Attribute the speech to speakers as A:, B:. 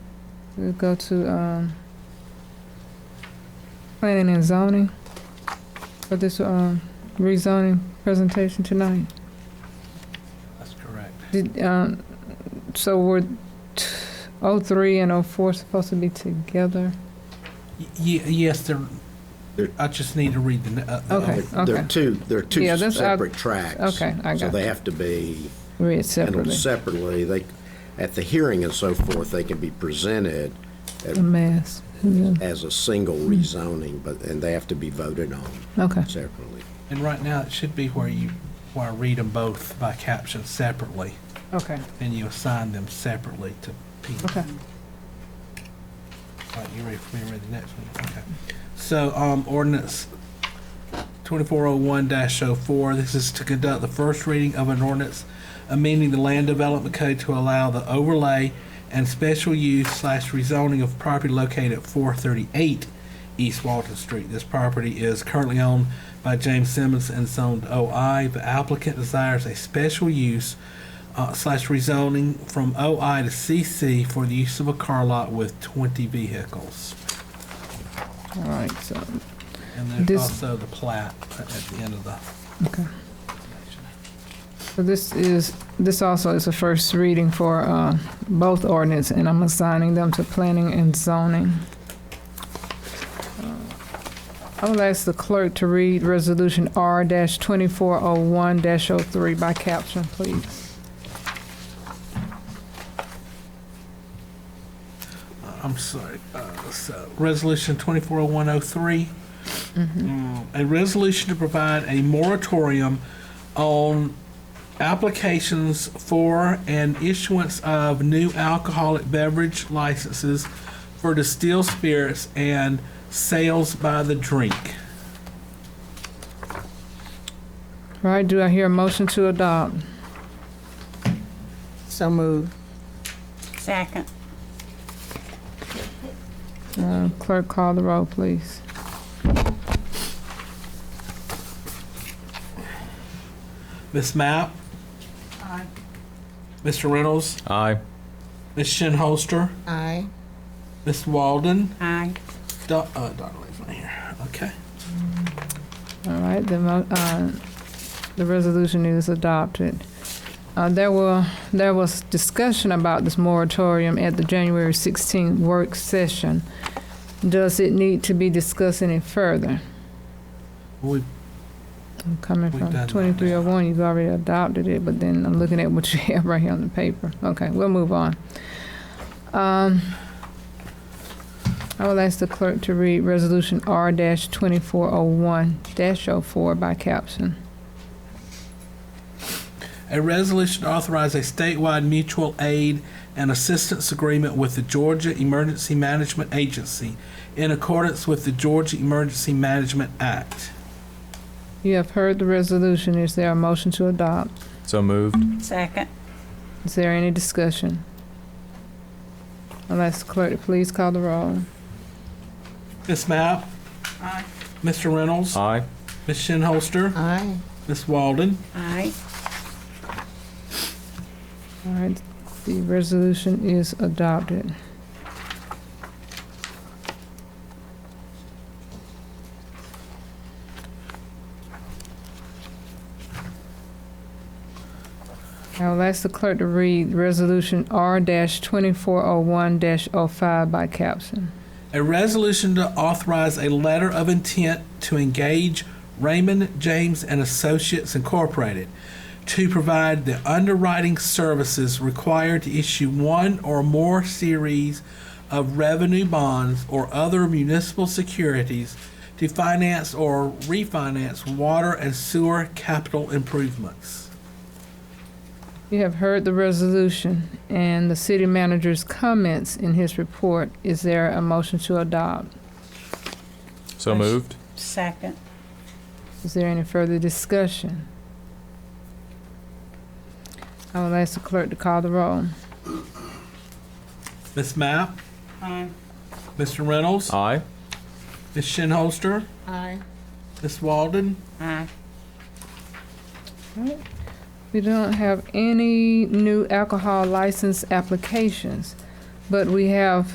A: We'll go to um, planning and zoning for this um, rezoning presentation tonight.
B: That's correct.
A: Did, um, So were t- 03 and 04 supposed to be together?
B: Y- ye- Yes, there,
C: There-
B: I just need to read the, uh, the
A: Okay.
B: other-
C: There there are two, there are
A: Yeah,
C: two
A: that's- I-
C: separate tracks.
A: Okay, I
C: So
A: got
C: they
A: you.
C: have to be
A: Read
C: handled
A: separately.
C: separately. They, at the hearing and so forth, they can be presented
A: A mess. Yeah.
C: as a single rezoning, but, and they have to be voted on
A: Okay,
C: separately.
B: and right now it should be where you, where I read them both by caption separately,
A: okay,
B: and you assign them separately to people.
A: okay.
B: All right, you ready for me to read the next one? Okay. So, um, ordinance twenty-four oh one 4 this is to conduct the first reading of an ordinance amending the land development code to allow the overlay and special use slash rezoning of property located at four thirty-eight East Walton Street. This property is currently owned by James Simmons and zoned OI. The applicant desires a special use uh, slash rezoning from OI to CC for the use of a car lot with 20 vehicles.
A: All right, so,
B: And there's
A: This-
B: also the plat at the end of the.
A: okay. So this is, this also is a first reading for uh, both ordinance, and I'm assigning them to planning and zoning. Uh, I will ask the clerk to read Resolution R-2401-03 by caption, please.
B: Uh, I'm sorry. Uh, so, resolution 240103. Mm, A resolution to provide a moratorium on applications for and issuance of new alcoholic beverage licenses for distilled spirits and sales by the drink.
A: All right, do I hear a motion to adopt?
D: So moved.
E: Second.
A: Uh, Clerk, call the roll, please.
B: Miss Mapp? Aye. Mr. Reynolds?
F: Aye.
B: Miss Shinholster?
D: Aye.
B: Miss Walden?
E: Aye.
B: Do- uh, Donna Lee's not here. Okay.
A: All right, the, mo- uh, the resolution is adopted. Uh, there were, there was discussion about this moratorium at the January 16th work session. Does it need to be discussed any further?
B: We,
A: I'm coming
B: We've
A: from
B: done that now.
A: 2301, you've already adopted it, but then I'm looking at what you have right here on the paper. Okay, we'll move on. Um, I will ask the clerk to read Resolution R-2401-04 by caption.
B: a resolution to authorize a statewide mutual aid and assistance agreement with the Georgia Emergency Management Agency in accordance with the Georgia Emergency Management Act.
A: You have heard the resolution. Is there a motion to adopt?
F: So moved.
E: Second.
A: Is there any discussion? I'll ask the clerk to please call the roll.
B: Miss Mapp?
E: Aye.
B: Mr. Reynolds?
F: Aye.
B: Miss Shinholster?
D: Aye.
B: Miss Walden?
E: Aye.
A: All right, the resolution is adopted. I'll ask the clerk to read Resolution R-2401-05 by caption.
B: A resolution to authorize a letter of intent to engage Raymond James and Associates Incorporated to provide the underwriting services required to issue one or more series of revenue bonds or other municipal securities to finance or refinance water and sewer capital improvements.
A: You have heard the resolution and the city manager's comments in his report. Is there a motion to adopt?
F: So moved.
E: Second.
A: Is there any further discussion? I will ask the clerk to call the roll.
B: Ms. Mapp,
E: Aye.
B: Mr. Reynolds,
F: Aye.
B: Ms. Shinholster,
D: Aye.
B: Ms. Walden,
E: Aye.
A: We don't have any new alcohol license applications, but we have